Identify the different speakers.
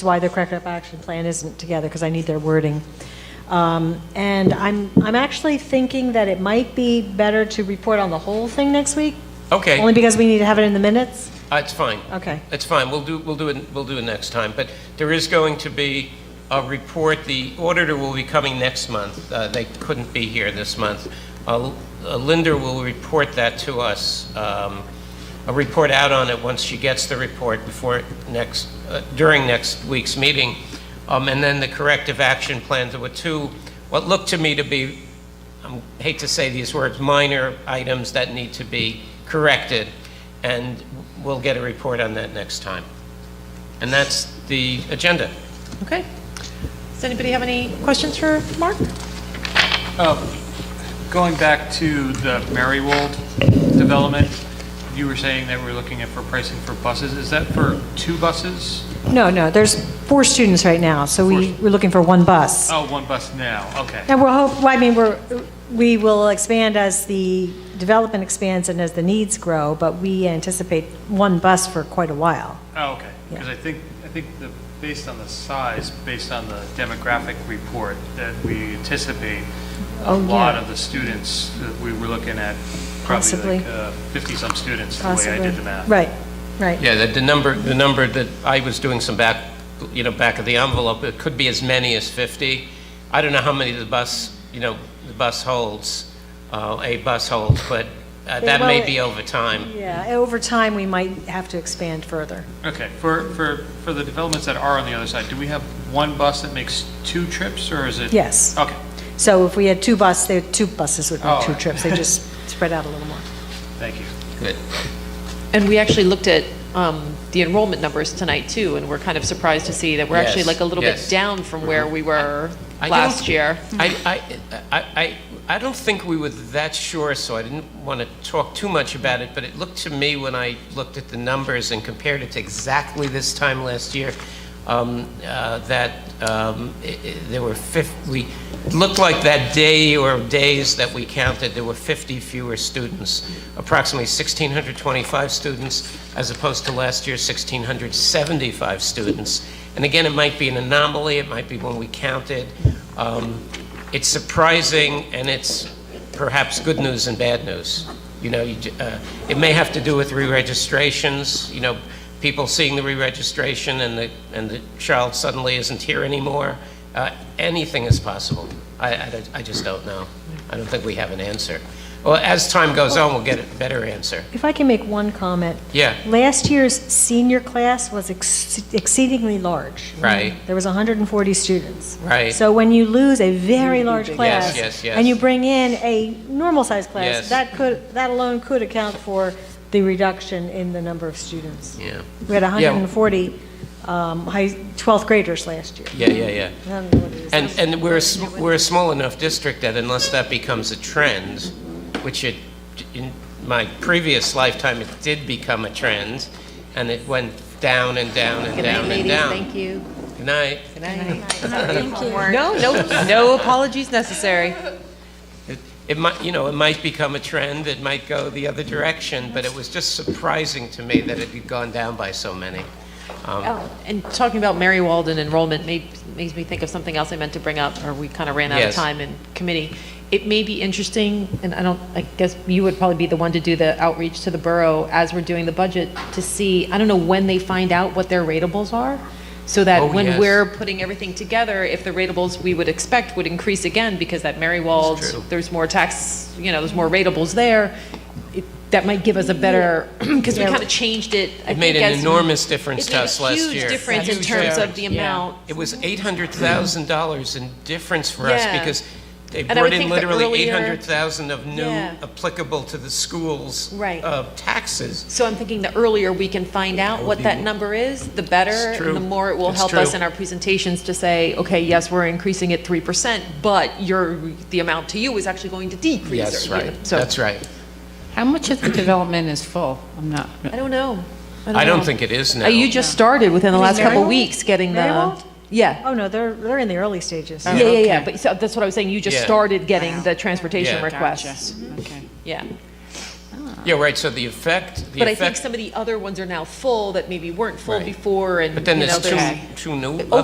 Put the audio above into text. Speaker 1: That's why the corrective action plan isn't together, because I need their wording. Um, And I'm, I'm actually thinking that it might be better to report on the whole thing next week, only
Speaker 2: Okay,
Speaker 1: because we need to have it in the minutes.
Speaker 2: it's fine.
Speaker 1: Okay.
Speaker 2: It's fine, we'll do, we'll do it, we'll do it next time. But there is going to be a report, the auditor will be coming next month. Uh, They couldn't be here this month. Uh, Linda will report that to us, um, a report out on it once she gets the report before next, uh, during next week's meeting. Um, And then the corrective action plans, there were two, what looked to me to be I hate to say these words, minor items that need to be corrected, and we'll get a report on that next time. And that's the agenda.
Speaker 3: Okay. Does anybody have any questions for Mark?
Speaker 4: Going back to the Marywold development, you were saying that we're looking at for pricing for buses. Is that for two buses?
Speaker 1: No, no, there's four students right now, so we, we're looking for one bus.
Speaker 4: Oh, one bus now, okay.
Speaker 1: And we'll hope, well, I mean, we're, we will expand as the development expands and as the needs grow, but we anticipate one bus for quite a while.
Speaker 4: Oh, okay. Because I think, I think the, based on the size, based on the demographic report, that we anticipate a
Speaker 1: Oh,
Speaker 4: lot
Speaker 1: yeah.
Speaker 4: of the students that we were looking at,
Speaker 1: Possibly.
Speaker 4: probably like 50-some students, the way I
Speaker 1: possibly.
Speaker 4: did the math.
Speaker 1: Right, right.
Speaker 2: Yeah, the- the number, the number that I was doing some back, you know, back of the envelope, it could be as many as 50. I don't know how many the bus, you know, the bus holds, uh, a bus holds, but uh, that may
Speaker 1: well,
Speaker 2: be over time.
Speaker 1: Yeah, over time, we might have to expand further.
Speaker 4: Okay, for, for, for the developments that are on the other side, do we have one bus that makes two trips, or is it?
Speaker 1: Yes.
Speaker 4: Okay,
Speaker 1: So if we had two buses, there, two buses would
Speaker 4: Oh,
Speaker 1: make two
Speaker 4: right.
Speaker 1: trips, they just spread out a little more.
Speaker 4: thank you.
Speaker 2: Good.
Speaker 3: And we actually looked at um, the enrollment numbers tonight, too, and we're kind of surprised to see that we're actually
Speaker 2: Yes,
Speaker 3: like a little bit
Speaker 2: yes. Mm-hmm.
Speaker 3: down from where we were
Speaker 2: I
Speaker 3: last
Speaker 2: don't-
Speaker 3: year.
Speaker 2: I, I, I, I I don't think we were that sure, so I didn't want to talk too much about it, but it looked to me, when I looked at the numbers and compared it to exactly this time last year, um, uh, that um, i- i- there were 50, we, looked like that day or days that we counted, there were 50 fewer students, approximately 1,625 students, as opposed to last year, 1,675 students. And again, it might be an anomaly, it might be when we counted. Um, it's surprising, and it's perhaps good news and bad news. You know, you, j- uh, it may have to do with re-registrations, you know, people seeing the re-registration and the, and the child suddenly isn't here anymore. Uh, Anything is possible. I, I don't- I just don't know. I don't think we have an answer. Well, as time goes on, we'll get a better answer.
Speaker 1: If I can make one comment.
Speaker 2: Yeah.
Speaker 1: Last year's senior class was ex- exceedingly large.
Speaker 2: Right.
Speaker 1: There was 140 students.
Speaker 2: Right.
Speaker 1: So when you lose a very large class.
Speaker 2: yes, yes.
Speaker 1: And you bring in a normal-sized class,
Speaker 2: Yes.
Speaker 1: that could, that alone could account for the reduction in the number of students.
Speaker 2: Yeah.
Speaker 1: We had
Speaker 2: Yeah.
Speaker 1: 140 um, high, 12th graders last year.
Speaker 2: Yeah, yeah, yeah.
Speaker 1: I don't know what it is.
Speaker 2: And, and we're, a sm- we're a small enough district that unless that becomes a trend, which it, in my previous lifetime, it did become a trend, and it went down and down and down and down. Thank you. Good night.
Speaker 3: Good night. No, no, no apologies necessary.
Speaker 2: It- It might, you know, it might become a trend, it might go the other direction, but it was just surprising to me that it had gone down by so many. Um,
Speaker 3: Oh, And talking about Mary Walden enrollment made, makes me think of something else I meant to bring up, or we kind of ran out of
Speaker 2: Yes.
Speaker 3: time in committee. It may be interesting, and I don't, I guess you would probably be the one to do the outreach to the borough as we're doing the budget, to see, I don't know when they find out what their ratables are, so
Speaker 2: Oh,
Speaker 3: that when
Speaker 2: yes.
Speaker 3: we're putting everything together, if the ratables we would expect would increase again, because that Mary Wald,
Speaker 2: That's true.
Speaker 3: there's more tax, you know, there's more ratables there, it- that might give us a better, because we kind of changed it. I
Speaker 2: It made
Speaker 3: think,
Speaker 2: an
Speaker 3: as-
Speaker 2: enormous difference
Speaker 3: it
Speaker 2: to
Speaker 3: made a
Speaker 2: us last year.
Speaker 3: Huge difference in
Speaker 2: Huge
Speaker 3: terms
Speaker 2: difference.
Speaker 3: of the amount.
Speaker 2: It was eight hundred thousand dollars in difference for us
Speaker 3: Yeah.
Speaker 2: because they
Speaker 3: And I
Speaker 2: brought
Speaker 3: would
Speaker 2: in
Speaker 3: think the
Speaker 2: literally eight
Speaker 3: earlier-
Speaker 2: hundred thousand of new
Speaker 3: Yeah.
Speaker 2: applicable to the schools.
Speaker 3: Right.
Speaker 2: uh, taxes.
Speaker 3: So I'm thinking the earlier we can find out what that number is, the better.
Speaker 2: It's true.
Speaker 3: And the more it will
Speaker 2: It's
Speaker 3: help us
Speaker 2: true.
Speaker 3: in our presentations to say, okay, yes, we're increasing it 3%, but your, the amount to you is actually going to decrease. or,
Speaker 2: That's
Speaker 3: you know,
Speaker 2: right,
Speaker 3: So,
Speaker 2: that's right.
Speaker 5: How much of the development is full? I'm not,
Speaker 3: I don't know.
Speaker 2: I don't
Speaker 3: know.
Speaker 2: think it is
Speaker 3: Uh,
Speaker 2: now.
Speaker 3: You just started within the
Speaker 1: Is it
Speaker 3: last couple
Speaker 1: Maryland?
Speaker 3: weeks getting the,
Speaker 1: Maryland?
Speaker 3: yeah.
Speaker 1: Oh, no, they're, they're in the early stages.
Speaker 3: Yeah, yeah, yeah. But so that's what I was saying. You just
Speaker 2: Yeah.
Speaker 3: started getting the transportation
Speaker 2: Yeah.
Speaker 3: requests.
Speaker 5: okay.
Speaker 3: Yeah.
Speaker 2: Yeah, right, so the effect, the
Speaker 3: But I think
Speaker 2: effect,
Speaker 3: some of the other ones are now full that maybe weren't full
Speaker 2: Right.
Speaker 3: before and,
Speaker 2: but
Speaker 3: you
Speaker 2: then
Speaker 3: know,
Speaker 2: there's two,
Speaker 3: there's. Oh,
Speaker 2: two new